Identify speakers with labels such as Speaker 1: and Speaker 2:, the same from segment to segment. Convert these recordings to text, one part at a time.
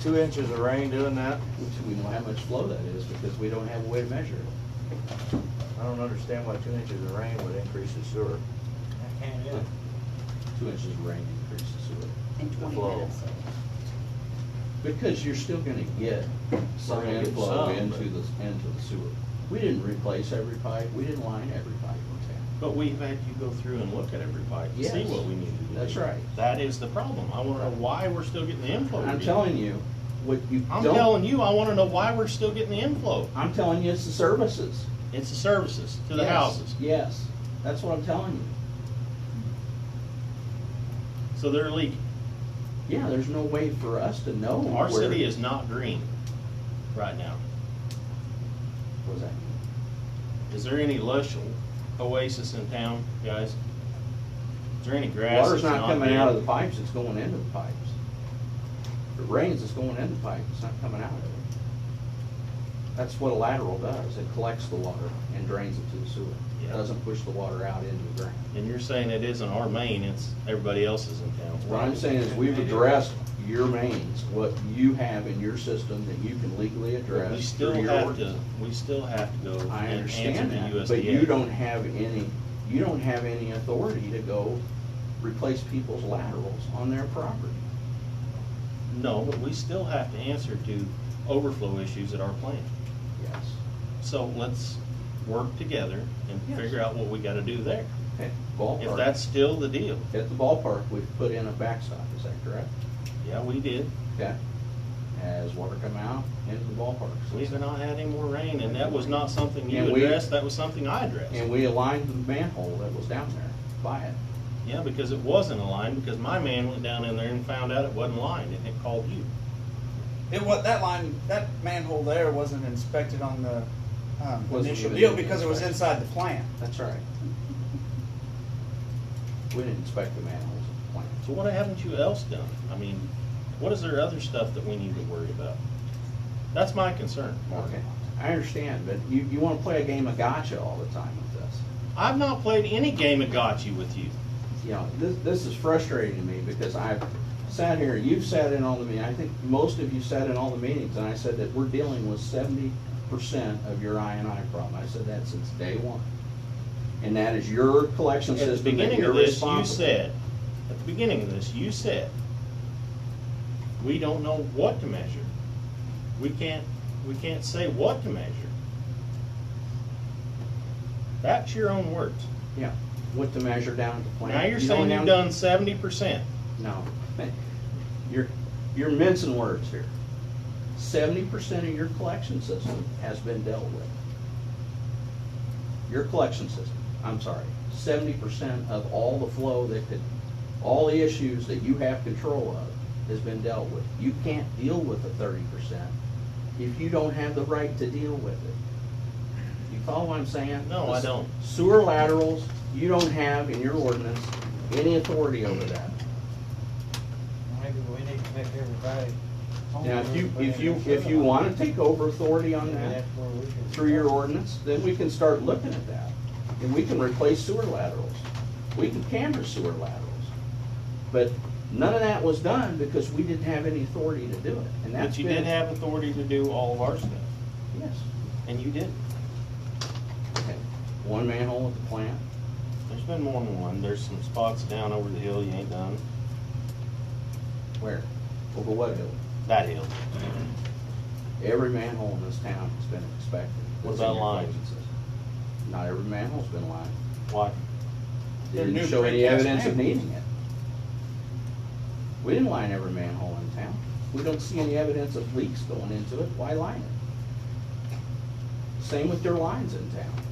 Speaker 1: two inches of rain doing that?
Speaker 2: which we know how much flow that is because we don't have a way to measure it.
Speaker 1: I don't understand why two inches of rain would increase the sewer.
Speaker 3: I can't do it.
Speaker 2: Two inches of rain increases sewer.
Speaker 4: in twenty
Speaker 1: flow.
Speaker 4: minutes.
Speaker 2: Because you're still gonna get some
Speaker 1: gonna get
Speaker 2: inflow
Speaker 1: some, but-
Speaker 2: into the, into the sewer. We didn't replace every pipe, we didn't line every pipe in town.
Speaker 5: But we've had you go through and look at every pipe and see
Speaker 2: Yes.
Speaker 5: what we need to do.
Speaker 2: That's right.
Speaker 5: That is the problem. I wanna know why we're still getting the inflow. we're
Speaker 2: I'm
Speaker 5: getting.
Speaker 2: telling you, what you
Speaker 5: I'm
Speaker 2: don't,
Speaker 5: telling you, I wanna know why we're still getting the inflow.
Speaker 2: I'm telling you, it's the services.
Speaker 5: It's the services to the
Speaker 2: Yes,
Speaker 5: houses.
Speaker 2: Yes, that's what I'm telling you.
Speaker 5: So they're leaking.
Speaker 2: Yeah, there's no way for us to know.
Speaker 5: Our
Speaker 2: where-
Speaker 5: city is not green right now.
Speaker 2: What was that?
Speaker 5: Is there any lush oasis in town, guys? Is there any grass?
Speaker 2: Water's
Speaker 5: that's
Speaker 2: not coming out of
Speaker 5: there?
Speaker 2: the pipes, it's going into the pipes. If it rains, it's going into the pipe, it's not coming out of it. That's what a lateral does, it collects the water and drains it to the sewer. It
Speaker 5: Yeah.
Speaker 2: doesn't push the water out into the ground.
Speaker 5: And you're saying it isn't our main, it's everybody else's in town.
Speaker 2: What I'm saying is we've addressed your mains, what you have in your system that you can legally address.
Speaker 5: We still
Speaker 2: through your
Speaker 5: have to,
Speaker 2: ordinance.
Speaker 5: we still have to go
Speaker 2: I
Speaker 5: and answer
Speaker 2: understand
Speaker 5: the
Speaker 2: that,
Speaker 5: USDA.
Speaker 2: but you don't have any, you don't have any authority to go replace people's laterals on their property.
Speaker 5: No, but we still have to answer to overflow issues at our plant.
Speaker 2: Yes.
Speaker 5: So let's work together and
Speaker 2: Yes.
Speaker 5: figure out what we gotta do there.
Speaker 2: Okay,
Speaker 5: If
Speaker 2: ballpark.
Speaker 5: that's still the deal,
Speaker 2: At the ballpark, we've put in a backstop, is that correct?
Speaker 5: yeah, we did.
Speaker 2: Okay. Has water come out into the ballpark?
Speaker 5: We've not had any more rain, and that was not something you
Speaker 2: And we-
Speaker 5: addressed, that was something I addressed.
Speaker 2: And we aligned the manhole that was down there by it.
Speaker 5: Yeah, because it wasn't aligned, because my man went down in there and found out it wasn't lined, and it called you.
Speaker 3: It was, that line, that manhole there wasn't inspected on the, um,
Speaker 2: Wasn't
Speaker 3: initial
Speaker 2: even
Speaker 3: deal because it was inside
Speaker 2: inspected.
Speaker 3: the plant.
Speaker 2: That's right. We didn't inspect the manholes at the plant.
Speaker 5: So what haven't you else done? I mean, what is there other stuff that we need to worry about? That's my concern, Mark.
Speaker 2: Okay, I understand, but you, you wanna play a game of gotcha all the time with us.
Speaker 5: I've not played any game of gotcha with you.
Speaker 2: You know, this, this is frustrating to me because I've sat here, you've sat in all the meetings, I think most of you sat in all the meetings, and I said that we're dealing with seventy percent of your I and I problem. I said that since day one. And that is your collection
Speaker 5: At the
Speaker 2: system that
Speaker 5: beginning
Speaker 2: you're
Speaker 5: of this, you
Speaker 2: responsible.
Speaker 5: said, at the beginning of this, you said, we don't know what to measure. We can't, we can't say what to measure. That's your own words.
Speaker 2: Yeah, what to measure down at the plant.
Speaker 5: Now you're
Speaker 2: You know,
Speaker 5: saying
Speaker 2: now-
Speaker 5: you've done seventy percent.
Speaker 2: No. You're, you're mincing words here. Seventy percent of your collection system has been dealt with. Your collection system, I'm sorry, seventy percent of all the flow that could, all the issues that you have control of has been dealt with. You can't deal with the thirty percent if you don't have the right to deal with it. You follow what I'm saying?
Speaker 5: No, I don't.
Speaker 2: Sewer laterals, you don't have in your ordinance any authority over that.
Speaker 6: Maybe we need to make everybody.
Speaker 2: Now, if you, if you, if you wanna take over authority on that through your ordinance, then we can start looking at that. And we can replace sewer laterals. We can camber sewer laterals. But none of that was done because we didn't have any authority to do it, and that's
Speaker 5: But you
Speaker 2: been.
Speaker 5: did have authority to do all of our stuff,
Speaker 2: Yes.
Speaker 5: and you didn't.
Speaker 2: Okay. One manhole at the plant,
Speaker 5: There's been more than one. There's some spots down over the hill you ain't done.
Speaker 2: where? Over what hill?
Speaker 5: That hill.
Speaker 2: Every manhole in this town has been inspected.
Speaker 5: What
Speaker 2: That's in
Speaker 5: about
Speaker 2: your
Speaker 5: lines?
Speaker 2: collection system. Not every manhole's been lined.
Speaker 5: Why?
Speaker 2: They
Speaker 3: They're
Speaker 2: Didn't
Speaker 3: new
Speaker 2: show any
Speaker 3: precast
Speaker 2: evidence of
Speaker 3: manholes.
Speaker 2: needing it. We didn't line every manhole in town. We don't see any evidence of leaks going into it. Why line it? Same with their lines in town.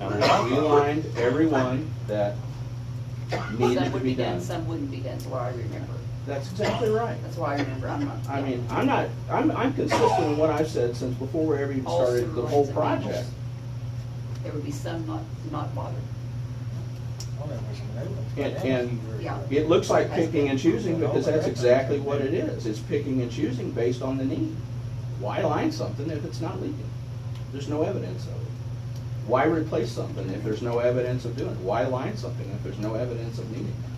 Speaker 2: We lined every one that needed
Speaker 4: Some
Speaker 2: to
Speaker 4: would
Speaker 2: be done.
Speaker 4: Some wouldn't be done, that's why I remember,
Speaker 2: That's exactly right.
Speaker 4: that's why I remember, I'm not.
Speaker 2: I mean, I'm not, I'm, I'm consistent in what I've said since before we ever even
Speaker 4: All
Speaker 2: started
Speaker 4: sewer
Speaker 2: the whole
Speaker 4: lines and manholes.
Speaker 2: project.
Speaker 4: There would be some not, not bothered.
Speaker 2: And, and
Speaker 4: Yeah.
Speaker 2: it looks like picking and choosing because that's exactly what it is. It's picking and choosing based on the need. Why line something if it's not leaking? There's no evidence of it. Why replace something if there's no evidence of doing it? Why line something if there's no evidence of needing it?